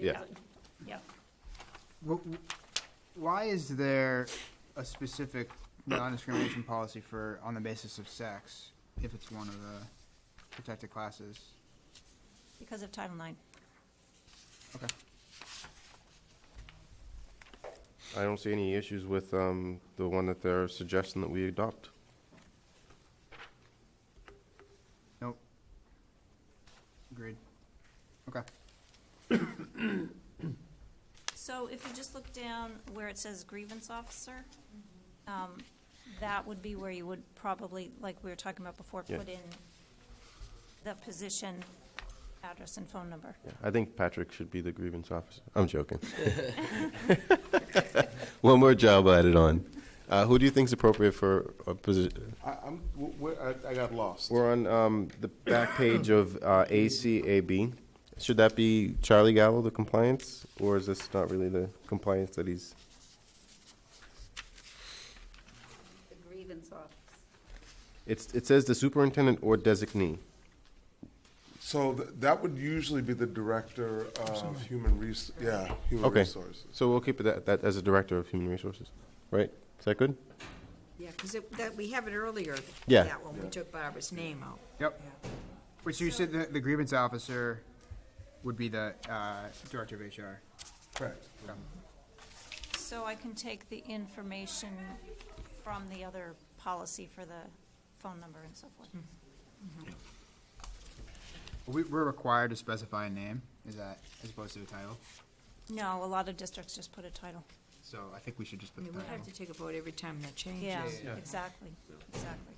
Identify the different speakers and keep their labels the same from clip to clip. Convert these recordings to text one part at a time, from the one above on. Speaker 1: Yeah.
Speaker 2: Yeah.
Speaker 3: Why is there a specific non-discrimination policy for, on the basis of sex, if it's one of the protected classes?
Speaker 2: Because of Title IX.
Speaker 3: Okay.
Speaker 1: I don't see any issues with um, the one that they're suggesting that we adopt.
Speaker 3: Nope. Agreed. Okay.
Speaker 2: So if you just look down where it says grievance officer, um, that would be where you would probably, like we were talking about before,
Speaker 1: Yeah.
Speaker 2: put in the position, address and phone number.
Speaker 1: Yeah, I think Patrick should be the grievance officer. I'm joking. One more job added on. Uh, Who do you think's appropriate for a position?
Speaker 4: I, I'm, w- where- I, I got lost.
Speaker 1: We're on um, the back page of uh, ACAB. Should that be Charlie Gallo, the compliance, or is this not really the compliance that he's?
Speaker 5: The grievance office.
Speaker 1: It's, it says the superintendent or designee.
Speaker 4: So th- that would usually be the director of human res, yeah, human
Speaker 1: Okay,
Speaker 4: resources.
Speaker 1: so we'll keep it that, that as a director of human resources, right? Is that good?
Speaker 6: Yeah, because that, we have it earlier,
Speaker 1: Yeah.
Speaker 6: that one, we took Barbara's name out.
Speaker 3: Yep. Which you said the, the grievance officer would be the, uh, director of HR.
Speaker 4: Correct.
Speaker 2: So I can take the information from the other policy for the phone number and so forth.
Speaker 3: We, we're required to specify a name, is that, as opposed to a title?
Speaker 2: No, a lot of districts just put a title.
Speaker 3: So I think we should just
Speaker 6: I
Speaker 3: put the
Speaker 6: mean, we
Speaker 3: title.
Speaker 6: have to take a vote every time that changes.
Speaker 2: Yeah, exactly, exactly.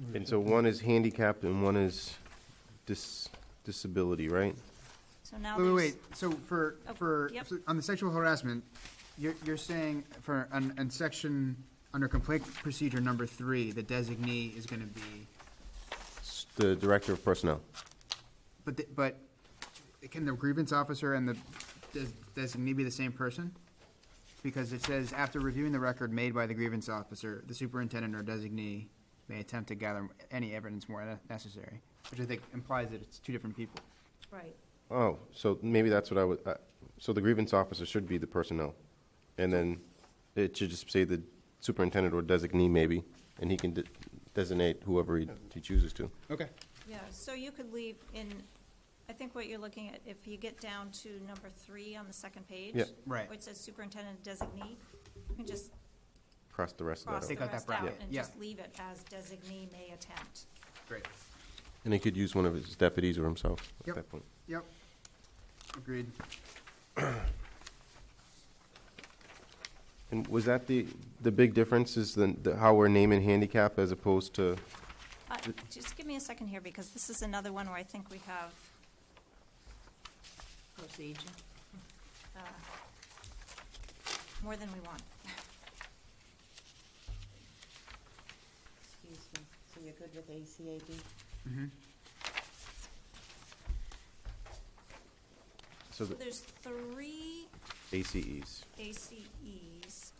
Speaker 1: Mm-hmm. And so one is handicapped and one is dis- disability, right?
Speaker 2: So now
Speaker 3: Wait, wait,
Speaker 2: there's.
Speaker 3: wait, so for,
Speaker 2: Oh,
Speaker 3: for,
Speaker 2: yep.
Speaker 3: so on the sexual harassment, you're, you're saying for, on, on section, under complaint procedure number three, the designee is gonna be,
Speaker 1: S- The director of personnel.
Speaker 3: but, the- but can the grievance officer and the des- designee be the same person? Because it says, after reviewing the record made by the grievance officer, the superintendent or designee may attempt to gather any evidence more ne- necessary, which I think implies that it's two different people.
Speaker 2: Right.
Speaker 1: Oh, so maybe that's what I would, uh, so the grievance officer should be the personnel. And then it should just say the superintendent or designee maybe, and he can de- designate whoever he he chooses to.
Speaker 3: Okay.
Speaker 2: Yeah, so you could leave in, I think what you're looking at, if you get down to number three on the second page.
Speaker 1: Yeah.
Speaker 3: Right.
Speaker 2: Where it says superintendent designee, you can just
Speaker 1: Cross the rest of
Speaker 2: cross
Speaker 1: that
Speaker 2: the
Speaker 1: out.
Speaker 3: Take out that
Speaker 2: rest out
Speaker 3: bracket,
Speaker 2: and
Speaker 3: yeah.
Speaker 2: just leave it as designee may attempt.
Speaker 3: Great.
Speaker 1: And he could use one of his deputies or himself at
Speaker 3: Yep.
Speaker 1: that point.
Speaker 3: Yep. Agreed.
Speaker 1: And was that the, the big difference is the, the- how we're naming handicap as opposed to,
Speaker 2: Uh, just give me a second here, because this is another one where I think we have,
Speaker 6: Procedure.
Speaker 2: uh, more than we want.
Speaker 5: Excuse me, so you're good with ACAB?
Speaker 1: so the
Speaker 2: There's three
Speaker 1: ACEs?
Speaker 2: ACEs,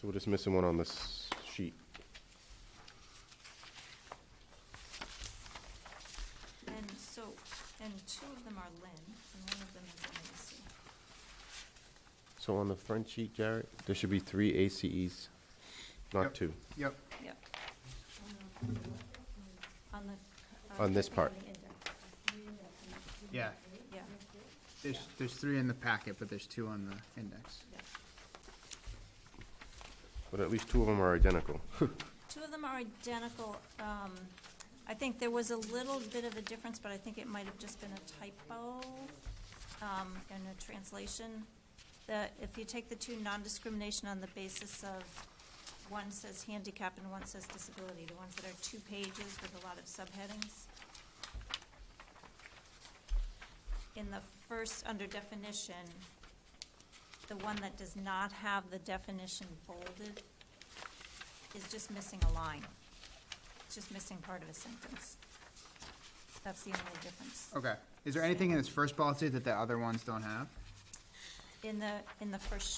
Speaker 1: So we're just missing one on this sheet.
Speaker 2: and so, and two of them are Lynn, and one of them is Lacey.
Speaker 1: So on the front sheet, Jarrett, there should be three ACEs, not
Speaker 3: Yep.
Speaker 1: two.
Speaker 3: Yep.
Speaker 2: Yep. On the. uh,
Speaker 1: On this part.
Speaker 2: on the index,
Speaker 3: Yeah.
Speaker 2: Yeah,
Speaker 3: There's, there's three in the packet, but there's two on the index.
Speaker 2: yeah.
Speaker 1: But at least two of them are identical.
Speaker 2: Two of them are identical. Um, I think there was a little bit of a difference, but I think it might have just been a typo, um, in a translation. The, if you take the two non-discrimination on the basis of, one says handicap and one says disability, the ones that are two pages with a lot of subheadings. In the first, under definition, the one that does not have the definition bolded is just missing a line. It's just missing part of a sentence. That's the only difference.
Speaker 3: Oh. Okay. Is there anything in this first policy that the other ones don't have?
Speaker 2: in the, in the first